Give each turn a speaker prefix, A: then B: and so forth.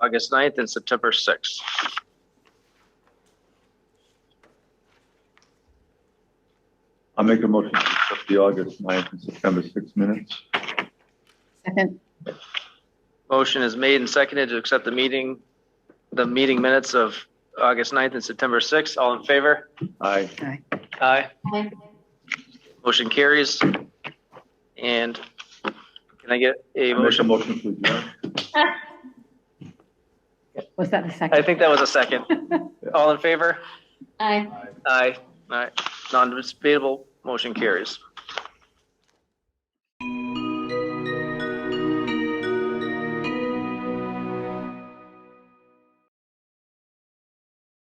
A: August 9th and September 6th.
B: I'll make a motion to accept the August 9th and September 6 minutes.
C: Second,
A: Motion is made and seconded to accept the meeting, the meeting minutes of August 9th and September 6th. All in favor?
B: Aye.
A: Aye. Motion carries. And can I get a
B: I make a
A: motion?
B: motion to adjourn.
C: was that the second?
A: I think that was a second. All in favor?
C: Aye.
A: Aye. All right. Non-debatable, motion carries.